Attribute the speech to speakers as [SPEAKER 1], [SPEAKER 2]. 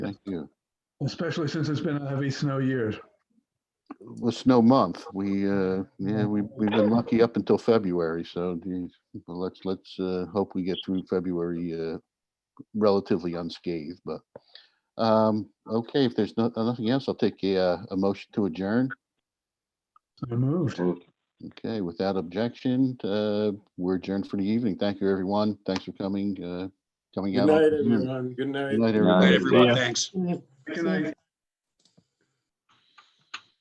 [SPEAKER 1] Thank you.
[SPEAKER 2] especially since it's been a heavy snow year.
[SPEAKER 1] The snow month, we, uh, yeah, we, we've been lucky up until February, so geez, well, let's, let's, uh, hope we get through February, uh, relatively unscathed, but, um, okay, if there's no, nothing else, I'll take a, uh, a motion to adjourn.
[SPEAKER 2] I moved.
[SPEAKER 1] Okay, without objection, uh, we're adjourned for the evening. Thank you, everyone. Thanks for coming, uh, coming
[SPEAKER 3] Good
[SPEAKER 1] out. on
[SPEAKER 3] night,
[SPEAKER 1] Zoom.
[SPEAKER 3] everyone. Good night.
[SPEAKER 1] Good night,
[SPEAKER 4] All right,
[SPEAKER 1] everybody.
[SPEAKER 4] everyone, thanks.
[SPEAKER 2] Good night.